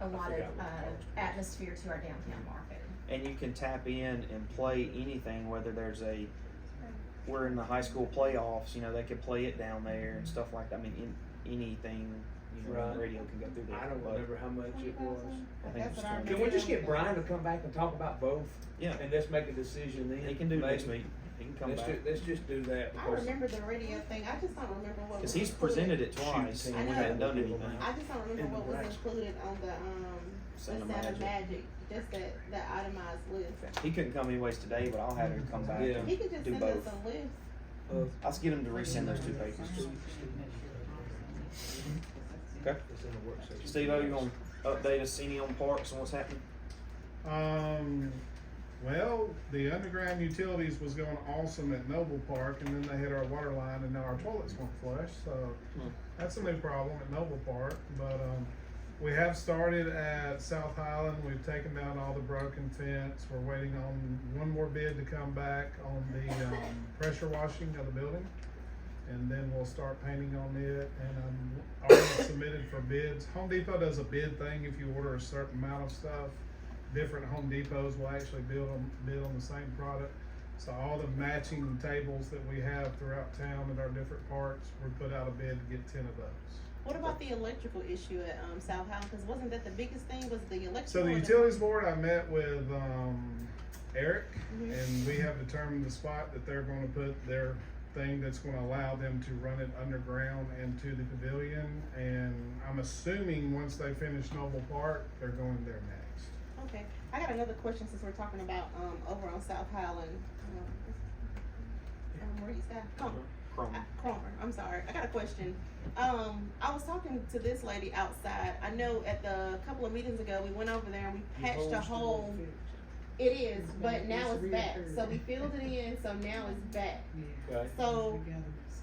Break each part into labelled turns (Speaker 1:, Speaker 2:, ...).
Speaker 1: a lot of,
Speaker 2: forgot
Speaker 1: uh,
Speaker 2: what it's called.
Speaker 1: atmosphere to our downtown market.
Speaker 3: and you can tap in and play anything, whether there's a, we're in the high school playoffs, you know, they could play it down there and stuff like that. I mean, in, anything, you know,
Speaker 2: Right.
Speaker 3: radio can go through there.
Speaker 2: I don't
Speaker 3: but
Speaker 2: remember how much it was.
Speaker 3: I think it's
Speaker 4: That's what I
Speaker 3: 20.
Speaker 2: Can we just get Brian to come back and talk about both?
Speaker 3: Yeah.
Speaker 2: And let's make a decision then.
Speaker 3: He can do it next
Speaker 2: maybe?
Speaker 3: meeting. He can come
Speaker 2: Let's
Speaker 3: back.
Speaker 2: ju- let's just do that.
Speaker 4: I
Speaker 2: because-
Speaker 4: remember the radio thing, I just don't remember what was.
Speaker 3: Because he's presented it twice
Speaker 2: Shoot,
Speaker 3: and we
Speaker 4: I
Speaker 3: hadn't
Speaker 2: know.
Speaker 3: done anything.
Speaker 4: I just don't
Speaker 2: in
Speaker 4: remember
Speaker 2: the
Speaker 4: what was
Speaker 2: racks.
Speaker 4: included on the, um,
Speaker 3: Sound of
Speaker 4: the sound
Speaker 3: Magic.
Speaker 4: of magic, just that, that itemized list.
Speaker 3: He couldn't come anyways today, but I'll have him come back.
Speaker 2: Yeah.
Speaker 3: and
Speaker 4: He could just
Speaker 3: Do
Speaker 4: send us
Speaker 3: both.
Speaker 4: a list.
Speaker 3: I'll just get him to resend those two papers. Okay.
Speaker 2: It's in the work session.
Speaker 3: Steve, you gonna update us any on parks and what's happening?
Speaker 5: Um, well, the underground utilities was going awesome at Noble Park, and then they hit our water line, and now our toilets won't flush, so
Speaker 3: Hmm.
Speaker 5: that's a new problem at Noble Park. But um, we have started at South Highland. We've taken down all the broken fence. We're waiting on one more bid to come back on the um, pressure washing of the building. And then we'll start painting on it, and I'm already submitted for bids. Home Depot does a bid thing if you order a certain amount of stuff different Home Depots will actually build on, bid on the same product. So all the matching tables that we have throughout town at our different parks, we put out a bid to get ten of those.
Speaker 4: What about the electrical issue at, um, South Highland, cause wasn't that the biggest thing, was the electrical?
Speaker 5: So the
Speaker 4: and
Speaker 5: utilities board, I met with, um, Eric,
Speaker 4: Mhm.
Speaker 5: and we have determined the spot that they're gonna put their thing that's gonna allow them to run it underground and to the pavilion. And I'm assuming once they finish Noble Park, they're going there next.
Speaker 4: Okay, I got another question since we're talking about, um, over on South Highland. Um, where he's at, Come on.
Speaker 3: Chrome.
Speaker 4: I- Cromer, I'm sorry. I got a question. Um, I was talking to this lady outside. I know at the couple of meetings ago, we went over there and we patched a hole. It is, but now it's back. So we filled it in, so now it's back.
Speaker 2: Okay.
Speaker 4: So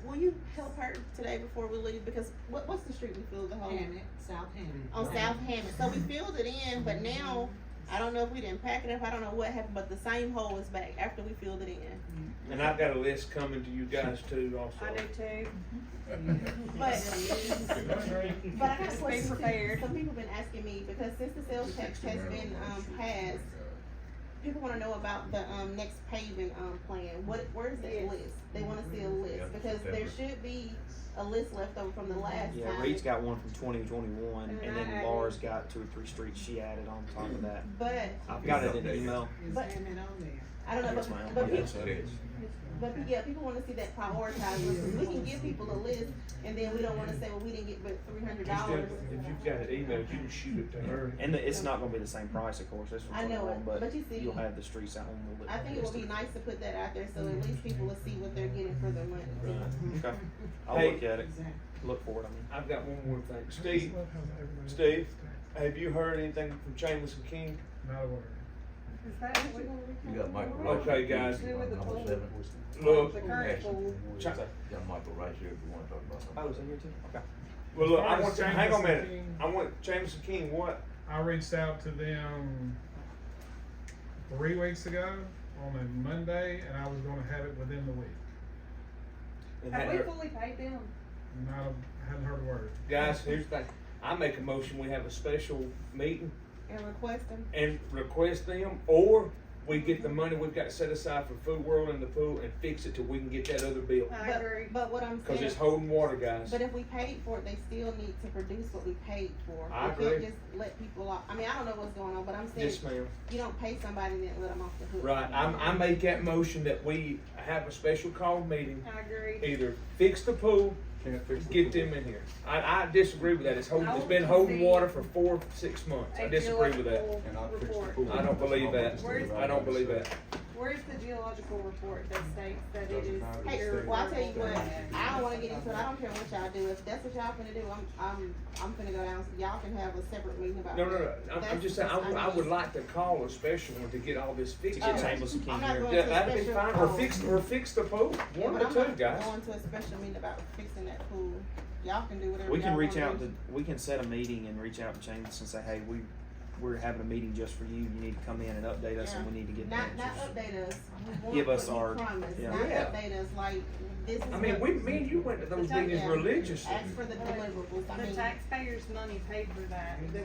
Speaker 4: will you help her today before we leave? Because what, what's the street we filled the hole in?
Speaker 6: South Hammond.
Speaker 4: On
Speaker 3: Mm-hmm.
Speaker 4: South Hammond. So we filled it in, but now, I don't know if we didn't pack it up. I don't know what happened, but the same hole is back after we filled it in.
Speaker 2: And I've got a list coming to you guys too also.
Speaker 6: too.
Speaker 4: But But I got a
Speaker 6: Just be
Speaker 4: question. too.
Speaker 6: prepared.
Speaker 4: Some people been asking me, because since the sales tax has been, um, passed, people wanna know about the, um, next paving, um, plan, what, where's that
Speaker 6: Yes.
Speaker 4: list? They wanna see a
Speaker 2: Mm-hmm.
Speaker 4: list, because there should be a list left over from the last
Speaker 3: Yeah, Reed's
Speaker 4: time.
Speaker 3: got one from twenty twenty-one, and
Speaker 6: And I
Speaker 3: then
Speaker 6: added-
Speaker 3: Laura's got two or three streets she added on top of that.
Speaker 4: But,
Speaker 3: I've got it in email.
Speaker 6: Is
Speaker 4: But-
Speaker 6: Hammond on there?
Speaker 4: I don't know,
Speaker 3: That's my
Speaker 4: but,
Speaker 3: own
Speaker 4: but,
Speaker 3: list.
Speaker 4: pe- but, yeah, people wanna see that prioritized list, 'cause we can give people a list, and then we don't wanna say, well, we didn't get but three hundred
Speaker 2: You still-
Speaker 4: dollars.
Speaker 2: If you've got it emailed, you can shoot it to her.
Speaker 3: And the- it's not gonna be the same price, of course, that's
Speaker 4: I
Speaker 3: from
Speaker 4: know it,
Speaker 3: twenty-one, but
Speaker 4: but you see-
Speaker 3: you'll have the streets out on the list.
Speaker 4: I think it would be nice to put that out there, so at least people will see what they're getting for their money.
Speaker 2: Right.
Speaker 3: Okay, I'll
Speaker 2: Hey-
Speaker 3: look at it,
Speaker 6: Exactly.
Speaker 3: look for it, I mean.
Speaker 2: I've got one more thing.
Speaker 5: I just
Speaker 2: Steve,
Speaker 5: love how everybody-
Speaker 2: Steve? have you heard anything from Chambers and King?
Speaker 5: Not a word.
Speaker 6: Is that what
Speaker 7: You got Michael Rice.
Speaker 2: Okay, guys.
Speaker 7: Number seven.
Speaker 2: Look,
Speaker 6: The current pool.
Speaker 2: Ch-
Speaker 7: Got Michael Rice here if you wanna talk about something.
Speaker 3: Oh, is it here too? Okay.
Speaker 2: well, look, I want,
Speaker 5: As far as
Speaker 2: hang on a
Speaker 5: Chambers and
Speaker 2: minute.
Speaker 5: King-
Speaker 2: I want Chambers and King, what?
Speaker 5: I reached out to them three weeks ago on a Monday, and I was going to have it within the week.
Speaker 2: And
Speaker 6: Have
Speaker 2: that-
Speaker 6: we fully paid them?
Speaker 5: Not a, hadn't heard a word.
Speaker 2: Guys, here's the thing. I make a motion, we have a special meeting
Speaker 4: And request them
Speaker 2: and request them, or we get the money we've got set aside for Food World and the pool and fix it till we can get that other bill.
Speaker 6: I
Speaker 4: But-
Speaker 6: agree.
Speaker 4: But what I'm
Speaker 2: Cause
Speaker 4: saying,
Speaker 2: it's holding water, guys.
Speaker 4: but if we paid for it, they still need to produce what we paid for.
Speaker 2: I
Speaker 4: We can't
Speaker 2: agree.
Speaker 4: Just let people off, I mean, I don't know what's going on, but I'm saying,
Speaker 2: Yes, ma'am.
Speaker 4: you don't pay somebody and then let them off the hook.
Speaker 2: Right, I'm, I make that motion that we have a special call meeting,
Speaker 6: I agree.
Speaker 2: either fix the pool, get them in here. I, I disagree with that. It's holding, it's been holding water for four, six months. I
Speaker 6: A
Speaker 2: disagree with that.
Speaker 6: geological
Speaker 7: And I'll fix the
Speaker 6: report.
Speaker 7: pool.
Speaker 2: I don't believe that.
Speaker 6: Where's-
Speaker 2: I don't believe that.
Speaker 6: Where's the geological report that states that it is?
Speaker 4: Hey,
Speaker 6: irreparable?
Speaker 4: well, I'll tell you what, I don't wanna get into it, I don't care what y'all do, if that's what y'all finna do, I'm, I'm, I'm finna go down, y'all can have a separate meeting about that.
Speaker 2: No, no, no. I'm, I'm just saying, I, would- I would like to call a special one to get all this
Speaker 3: To
Speaker 2: fixed.
Speaker 3: get
Speaker 2: Yeah,
Speaker 3: Chambers and
Speaker 4: uh, I'm
Speaker 3: King
Speaker 4: not
Speaker 3: here.
Speaker 4: going to a
Speaker 2: that'd be
Speaker 4: special.
Speaker 2: fine. Or
Speaker 4: call.
Speaker 2: fix, or fix the pool.
Speaker 4: Yeah,
Speaker 2: One
Speaker 4: but
Speaker 2: or
Speaker 4: I'm
Speaker 2: two,
Speaker 4: not
Speaker 2: guys.
Speaker 4: Going to a special meeting about fixing that pool, y'all can do whatever
Speaker 3: We can
Speaker 4: y'all
Speaker 3: reach
Speaker 4: wanna
Speaker 3: out
Speaker 4: do.
Speaker 3: to, we can set a meeting and reach out to Chambers and say, hey, we, we're having a meeting just for you, you need to come in and update us and we need to get the
Speaker 4: Not, not
Speaker 3: answers.
Speaker 4: update us. We want
Speaker 3: Give
Speaker 4: what
Speaker 3: us
Speaker 4: we
Speaker 3: our-
Speaker 4: promised.
Speaker 3: yeah.
Speaker 4: Not
Speaker 2: Yeah.
Speaker 4: update us like this is.
Speaker 2: I mean,
Speaker 4: what-
Speaker 2: we, me and you went to those
Speaker 6: The tax-
Speaker 2: meetings religiously.
Speaker 4: Ask for the deliverables, I
Speaker 6: The
Speaker 4: mean.
Speaker 6: taxpayers' money paid for that.